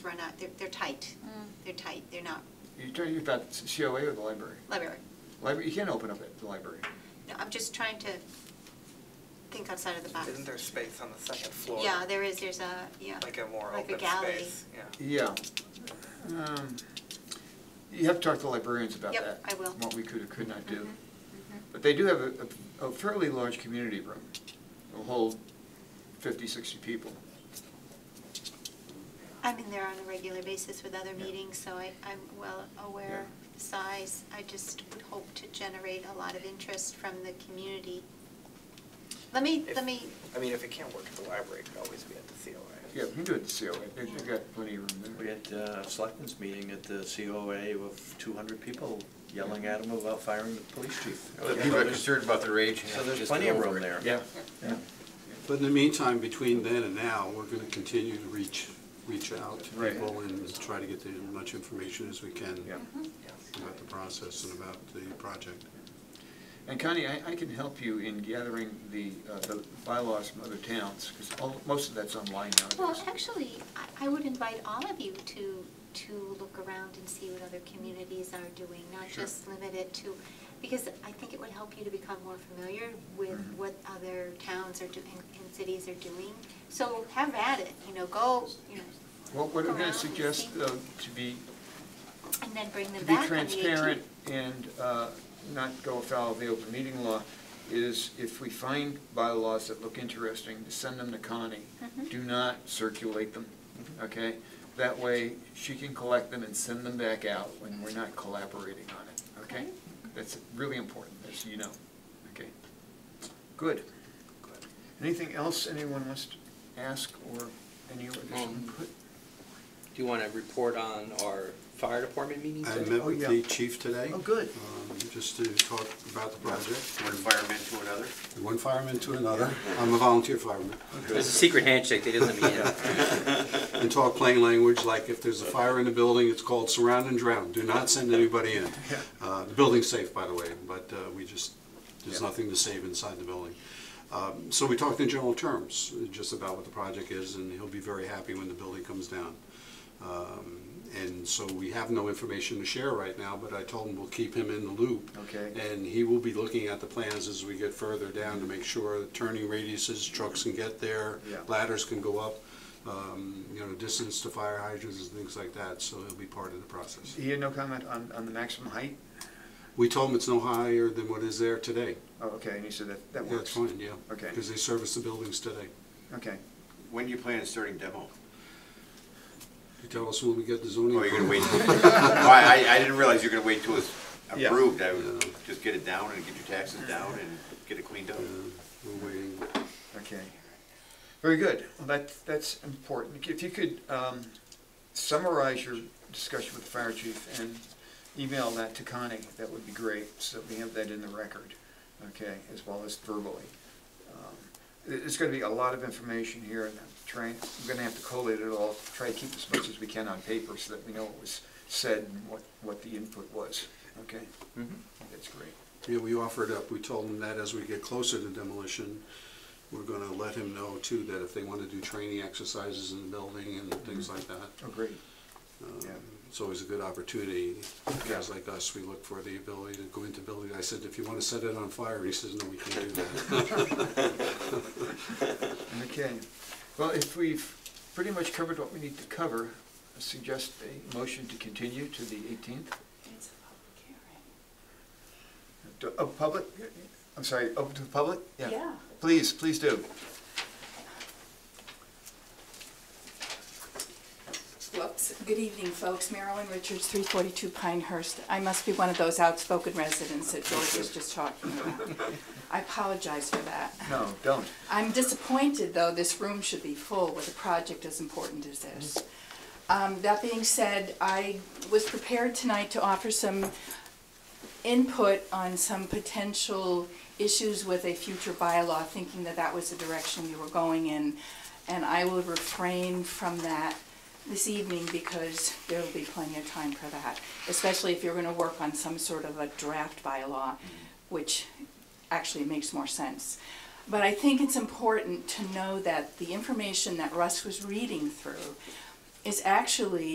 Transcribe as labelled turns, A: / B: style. A: not, they're, they're tight. They're tight, they're not,
B: You're talking about COA or the library?
A: library.
B: Library, you can't open up at the library.
A: No, I'm just trying to think outside of the box.
C: Isn't there space on the second floor?
A: Ah. Yeah, there is, there's a, yeah.
C: Like a more
A: like
C: open
A: gallery.
C: space, yeah.
B: Yeah. Um, You have to talk to librarians about that.
A: Yep, I will.
B: What we could or could not do.
A: Mhm, mhm.
B: But they do have a- a a fairly large community room. It'll hold 50, 60 people.
A: I'm in there on a regular basis with other
B: Yeah.
A: meetings, so I, I'm well aware of the size. I just would hope to generate a lot of interest from the community. Let me,
C: If-
A: let me,
C: I mean, if it can't work at the library, it could always be at the COA.
B: Yeah, hmm. we can do it at the COA. They- They've got plenty of room
D: We
B: there.
D: had uh, a selectmen's meeting at the COA with 200 people yelling at him about firing the police chief.
E: The people are concerned about their age.
D: So there's
E: just
D: plenty
E: go
D: of
E: over
D: room
E: it.
D: there.
B: Yeah.
D: Yeah.
F: But in the meantime, between then and now, we're going to continue to reach, reach out to
B: Right.
F: people and try to get as much information as we can
B: Yeah.
F: about the process and about the project.
B: And Connie, I, I can help you in gathering the, uh, the bylaws from other towns, because most of that's online
A: well,
B: nowadays.
A: actually, I, I would invite all of you to, to look around and see what other communities are doing, not
B: Sure.
A: just limit it to, because I think it would help you to become more familiar with
B: Mhm.
A: what other towns are doing and cities are doing. So have at it, you know, go, you know,
B: Well, what I'm
A: Around
B: gonna
A: and
B: suggest,
A: see.
B: though, to be,
A: and then bring
B: to
A: them
B: be
A: back on the 18th.
B: transparent and, uh, not go afoul of the open meeting law, is if we find bylaws that look interesting, to send them to Connie.
A: Mhm.
B: Do not circulate them, okay? That way, she can collect them and send them back out when we're not collaborating on it, okay?
A: Okay.
B: That's really important, as you know, okay? Good. Anything else anyone wants to ask or any additional
G: Um,
B: input?
G: Do you want to report on our fire department meeting
F: I
G: today?
F: met with the chief today.
B: Oh, good.
F: um, Just to talk about the project.
E: One fireman to another.
F: One fireman to another. I'm a volunteer fireman.
G: There's a secret handshake that doesn't mean it.
F: And talk plain language, like if there's a fire in the building, it's called surround and drown. Do not send anybody in. Uh, The building's safe, by the way, but uh, we just, there's
B: Yeah.
F: nothing to save inside the building. Um, So we talked in general terms, uh, just about what the project is, and he'll be very happy when the building comes down. Um, And so we have no information to share right now, but I told him we'll keep him in the loop.
B: Okay.
F: And he will be looking at the plans as we get further down to make sure the turning radiuses, trucks can get there,
B: Yeah.
F: ladders can go up, um, you know, distance to fire hydrants and things like that, so he'll be part of the process.
B: He had no comment on, on the maximum height?
F: We told him it's no higher than what is there today.
B: Oh, okay, and he said that, that
F: That's
B: works.
F: fine, yeah.
B: Okay.
F: Because they service the buildings today.
B: Okay.
E: When do you plan on starting demo?
F: You tell us when we get the zoning.
E: Oh, you're gonna wait,
F: approval.
E: Oh, I, I- I didn't realize you were gonna wait till it's
B: Yeah.
E: approved, I would
F: Yeah.
E: just get it down and get your taxes down and get it cleaned up.
F: Yeah, We're waiting.
B: Okay. Very good. Well, that, that's important. If you could um, summarize your discussion with the fire chief and email that to Connie, that would be great, so we have that in the record, okay, as well as verbally. Um, it- It's gonna be a lot of information here, and I'm trying, I'm gonna have to collate it all, try to keep as much as we can on paper so that we know what was said and what, what the input was, okay? That's great.
F: Yeah, we offered up, we told him that as we get closer to demolition, we're gonna let him know too, that if they wanna do training exercises in the building and things like that.
B: Oh, great.
F: um,
B: Yeah.
F: It's always a good opportunity. Guys
B: Yeah.
F: like us, we look for the ability to go into building. I said, if you wanna set it on fire, he says, no, we can't do that.
B: Okay, well, if we've pretty much covered what we need to cover, I suggest a motion to continue to the 18th.
H: It's a
B: Do-
H: public hearing.
B: Oh, public, I'm sorry, open to the public?
H: Yeah.
B: Please, please do.
H: Whoops. Good evening, folks. Marilyn Richards, 342 Pinehurst. I must be one of those outspoken residents that George was just talking about. I apologize for that.
B: No, don't.
H: I'm disappointed, though, this room should be full with a project as important as this. Um, That being said, I was prepared tonight to offer some input on some potential issues with a future bylaw, thinking that that was the direction we were going in. And I will refrain from that this evening because there will be plenty of time for that, especially if you're going to work on some sort of a draft bylaw, which actually makes more sense. But I think it's important to know that the information that Russ was reading through is actually